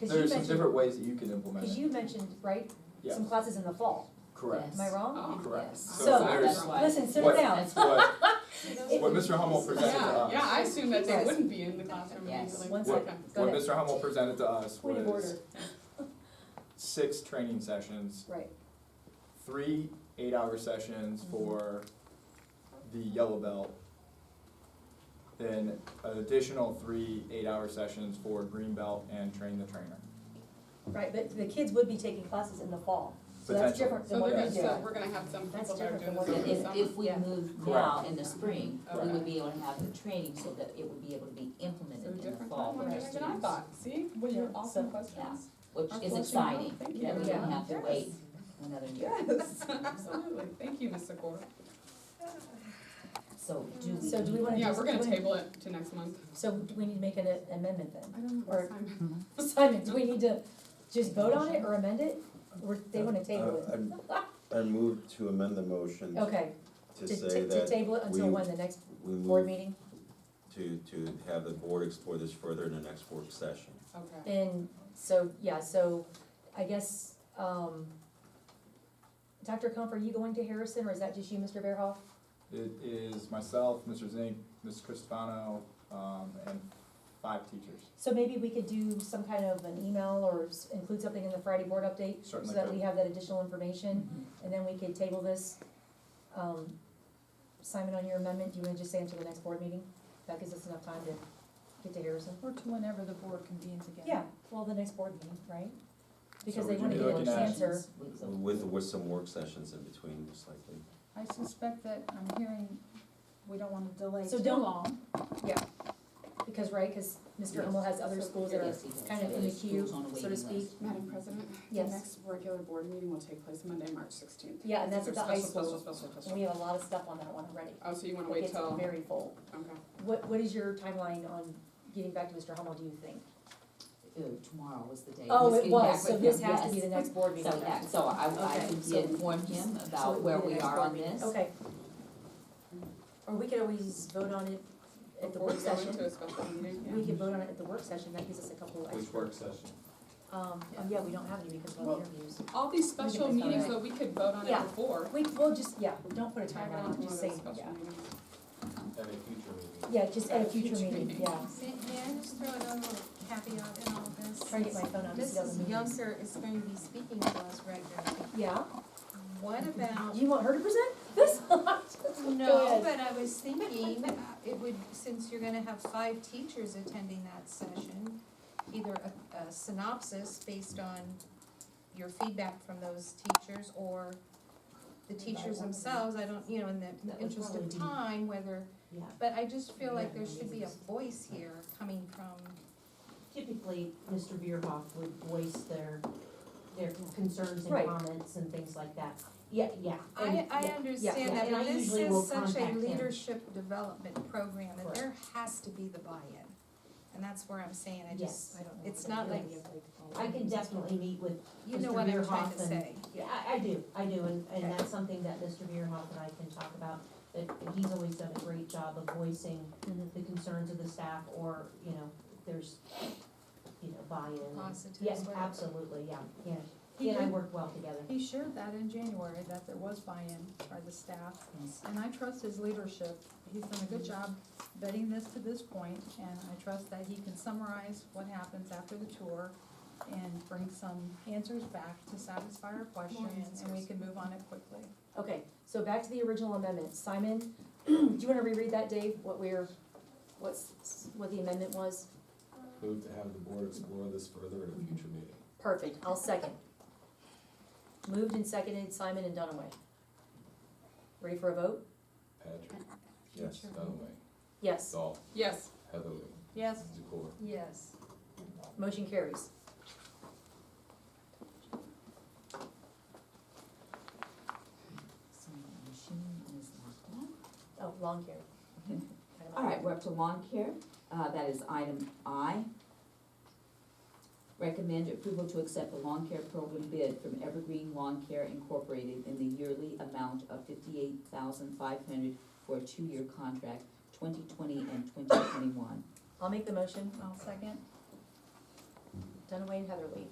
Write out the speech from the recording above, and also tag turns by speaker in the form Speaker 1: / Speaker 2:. Speaker 1: Because
Speaker 2: There
Speaker 1: you
Speaker 2: are some
Speaker 1: mentioned,
Speaker 2: different ways that you can implement
Speaker 1: because
Speaker 2: it.
Speaker 1: you mentioned, right,
Speaker 2: Yes,
Speaker 1: some classes in the fall,
Speaker 2: correct.
Speaker 3: Yes.
Speaker 1: am I wrong?
Speaker 4: Oh,
Speaker 2: Correct.
Speaker 3: Yes.
Speaker 2: So
Speaker 1: So-
Speaker 2: there's
Speaker 3: That's why.
Speaker 1: Listen, sit
Speaker 2: What-
Speaker 1: down.
Speaker 2: what,
Speaker 1: It-
Speaker 2: what Mr. Hummel presented to
Speaker 4: Yeah,
Speaker 2: us.
Speaker 4: yeah, I assumed that they
Speaker 1: Yes.
Speaker 4: wouldn't be in the classroom.
Speaker 3: Yes.
Speaker 4: usually.
Speaker 1: One
Speaker 2: What-
Speaker 1: second, go
Speaker 2: What
Speaker 1: ahead.
Speaker 2: Mr. Hummel presented to us
Speaker 1: Point of order,
Speaker 2: was six training sessions,
Speaker 1: right,
Speaker 2: three eight-hour sessions
Speaker 1: Mhm.
Speaker 2: for the yellow belt, then an additional three eight-hour sessions for green belt and train the trainer.
Speaker 1: right, but the kids would be taking classes in the fall, so that's
Speaker 2: Potentially.
Speaker 1: different than
Speaker 4: So
Speaker 1: what
Speaker 4: they're
Speaker 1: we
Speaker 4: gonna,
Speaker 1: do.
Speaker 4: so we're gonna have some
Speaker 1: That's
Speaker 4: people that are doing
Speaker 1: different
Speaker 2: than what
Speaker 3: If,
Speaker 4: this in the
Speaker 3: if-
Speaker 4: summer.
Speaker 3: if we
Speaker 1: Yeah.
Speaker 3: moved now in the
Speaker 4: Correct.
Speaker 3: spring, we
Speaker 2: Correct.
Speaker 3: would be able to have the training so that it would be able to be implemented
Speaker 4: So
Speaker 3: in the
Speaker 4: different
Speaker 3: fall
Speaker 4: time
Speaker 3: for our
Speaker 4: dynamic than I
Speaker 3: students,
Speaker 4: thought, see, well, you're
Speaker 1: Yeah.
Speaker 4: awesome
Speaker 1: So-
Speaker 4: questions.
Speaker 3: which
Speaker 4: Our
Speaker 3: is
Speaker 4: flushing
Speaker 3: exciting.
Speaker 4: out, thank
Speaker 3: That we
Speaker 4: you.
Speaker 3: don't have to
Speaker 4: Yes.
Speaker 3: wait another year.
Speaker 4: Yes, absolutely, thank you, Ms. Secor.
Speaker 3: So do we?
Speaker 1: So do we wanna
Speaker 4: Yeah,
Speaker 1: just-
Speaker 4: we're gonna
Speaker 1: do we-
Speaker 4: table it to next month.
Speaker 1: So do we need to make an amendment then?
Speaker 4: I don't know
Speaker 1: Or-
Speaker 4: what time.
Speaker 1: Simon, do we need to just vote on it or amend it, or they wanna table it?
Speaker 5: Uh, I I move to amend the motion
Speaker 1: Okay,
Speaker 5: to
Speaker 1: to,
Speaker 5: say
Speaker 1: to, to
Speaker 5: that
Speaker 1: table it until
Speaker 5: we-
Speaker 1: when, the next
Speaker 5: we
Speaker 1: board
Speaker 5: move
Speaker 1: meeting,
Speaker 5: to, to have the board explore this further in the next work session.
Speaker 4: Okay,
Speaker 1: and, so, yeah, so, I guess, um, Dr. Kump, are you going to Harrison, or is that just you, Mr. Bearhoff?
Speaker 2: It is myself, Mr. Zink, Ms. Cristofano, um, and five teachers.
Speaker 1: So maybe we could do some kind of an email or s- include something in the Friday board update, so
Speaker 2: Certainly
Speaker 1: that
Speaker 2: could.
Speaker 1: we have that additional information, and then we could table this. Um, Simon, on your amendment, do you wanna just say until the next board meeting? That gives us enough time to get to Harrison.
Speaker 6: Or to whenever the board convenes again.
Speaker 1: Yeah, well, the next board meeting, right? Because
Speaker 2: So
Speaker 1: they
Speaker 2: would you
Speaker 1: wanna
Speaker 2: be
Speaker 1: get an
Speaker 2: looking at-
Speaker 1: answer.
Speaker 3: Weeks of-
Speaker 5: With, with some work sessions in between, most likely.
Speaker 6: I suspect that I'm hearing, we don't wanna delay
Speaker 1: So
Speaker 6: too
Speaker 1: don't-
Speaker 6: long.
Speaker 1: Because, right, cause Mr.
Speaker 3: Yes.
Speaker 1: Hummel has other
Speaker 4: So
Speaker 1: schools that are,
Speaker 3: Yes, even
Speaker 1: kind of
Speaker 3: so
Speaker 1: in the
Speaker 3: there's
Speaker 1: queue,
Speaker 3: schools on a
Speaker 1: so to
Speaker 3: waiting
Speaker 1: speak.
Speaker 3: list.
Speaker 4: Madam President, the
Speaker 1: Yes.
Speaker 4: next regular board meeting will take place Monday, March sixteenth.
Speaker 1: Yeah, and that's at the high
Speaker 4: Special,
Speaker 1: school.
Speaker 4: special, special,
Speaker 1: we
Speaker 4: special.
Speaker 1: have a lot of stuff on that one already.
Speaker 4: Oh, so you wanna
Speaker 1: It
Speaker 4: wait
Speaker 1: gets
Speaker 4: till, okay.
Speaker 1: Very full. What, what is your timeline on getting back to Mr. Hummel, do you think?
Speaker 3: Uh, Tomorrow was the day.
Speaker 1: Oh, it
Speaker 3: He's getting back
Speaker 1: was, so
Speaker 3: with
Speaker 1: this
Speaker 3: him,
Speaker 1: has to
Speaker 3: yes.
Speaker 1: be the next board meeting.
Speaker 3: So, yeah, so I, I
Speaker 1: Okay, so-
Speaker 3: did inform him
Speaker 1: So it
Speaker 3: about
Speaker 1: would
Speaker 3: where
Speaker 1: be the
Speaker 3: we
Speaker 1: next
Speaker 3: are
Speaker 1: board
Speaker 3: on
Speaker 1: meeting.
Speaker 3: this.
Speaker 1: Okay. Or we could always vote on it at the
Speaker 4: Before we
Speaker 1: work
Speaker 4: go
Speaker 1: session.
Speaker 4: into a special meeting, yeah.
Speaker 1: We could vote on it at the work session, that gives us a couple extra.
Speaker 2: session?
Speaker 1: Um, oh, yeah, we don't have any because of the
Speaker 4: Well-
Speaker 1: interviews.
Speaker 4: All these
Speaker 1: can
Speaker 4: special
Speaker 1: make that
Speaker 4: meetings,
Speaker 1: right.
Speaker 4: though, we could vote on
Speaker 1: Yeah.
Speaker 4: it before.
Speaker 1: We, we'll just, yeah, don't put a
Speaker 4: Tag it
Speaker 1: timeline,
Speaker 4: on
Speaker 1: on it,
Speaker 4: to one
Speaker 1: just
Speaker 4: of
Speaker 1: say,
Speaker 4: those special
Speaker 1: yeah.
Speaker 4: meetings.
Speaker 2: At a future meeting.
Speaker 1: Yeah, just at a future
Speaker 4: Future
Speaker 1: meeting,
Speaker 4: meeting.
Speaker 1: yeah.
Speaker 7: May, may I just throw another little caveat in all this?
Speaker 1: Try to get my phone out, just
Speaker 7: Mrs.
Speaker 1: meeting.
Speaker 7: Younger is going to be speaking to us regularly.
Speaker 1: Yeah,
Speaker 7: What about,
Speaker 1: you want her to present this?
Speaker 7: no,
Speaker 1: ahead.
Speaker 7: but I was thinking, uh, it would, since you're gonna have five teachers attending that session, either a, a synopsis based on your feedback from those teachers or the teachers themselves, I don't, you know, in
Speaker 3: That
Speaker 7: the
Speaker 3: would
Speaker 7: interest
Speaker 3: probably
Speaker 7: of
Speaker 3: be-
Speaker 7: time, whether,
Speaker 3: Yeah.
Speaker 7: but I just feel like there should be a voice here coming from
Speaker 8: typically, Mr. Bierhoff would voice their, their concerns
Speaker 1: Right.
Speaker 8: and comments and things like that. Yeah, yeah.
Speaker 7: I,
Speaker 8: and-
Speaker 7: I
Speaker 8: yeah.
Speaker 7: understand
Speaker 8: yeah,
Speaker 7: that,
Speaker 8: and
Speaker 7: but
Speaker 8: I
Speaker 7: this
Speaker 8: usually will
Speaker 7: is such a
Speaker 8: contact him.
Speaker 7: leadership development program, and
Speaker 8: Correct.
Speaker 7: there has to be the buy-in. And that's where I'm saying, I just,
Speaker 8: Yes.
Speaker 7: it's not like,
Speaker 8: I can definitely meet with,
Speaker 7: you know
Speaker 8: Mr.
Speaker 7: what I'm trying
Speaker 8: Bierhoff
Speaker 7: to
Speaker 8: and-
Speaker 7: say.
Speaker 8: yeah, I, I do, I do, and,
Speaker 7: Okay.
Speaker 8: and that's something that Mr. Bierhoff and I can talk about. That he's always done a great job of voicing
Speaker 1: Mhm.
Speaker 8: the concerns of the staff or, you know, there's, you know, buy-in.
Speaker 7: Positive
Speaker 8: Yes,
Speaker 7: whatever.
Speaker 8: absolutely, yeah, yeah. He and I work well together.
Speaker 6: He shared that in January, that there was buy-in by the staff, and I trust his leadership. He's done a good job vetting this to this point, and I trust that he can summarize what happens after the tour and bring some answers back to satisfy our questions, and we
Speaker 7: answers.
Speaker 6: can move on it quickly.
Speaker 1: Okay, so back to the original amendment, Simon, do you wanna reread that, Dave, what we're, what's, what the amendment was?
Speaker 9: Move to have the board explore this further at a future meeting.
Speaker 1: Perfect, I'll second. Moved and seconded, Simon and Dunaway. Ready for a vote?
Speaker 9: Patrick,
Speaker 5: Yes.
Speaker 7: Mm-hmm.
Speaker 9: Dunaway,
Speaker 1: Yes,
Speaker 9: Dahl,
Speaker 4: Yes,
Speaker 9: Heatherly,
Speaker 6: Yes,
Speaker 9: Zakor.
Speaker 7: Yes.
Speaker 1: motion carries.
Speaker 3: So the machine is locked up.
Speaker 1: Oh, lawn care.
Speaker 3: All right, we're up to lawn care, uh, that is item I. Recommend approval to accept the lawn care program bid from Evergreen Lawn Care Incorporated in the yearly amount of fifty-eight thousand five hundred for a two-year contract, twenty twenty and twenty twenty-one.
Speaker 1: I'll make the motion.
Speaker 6: I'll second.
Speaker 1: Dunaway and Heatherly.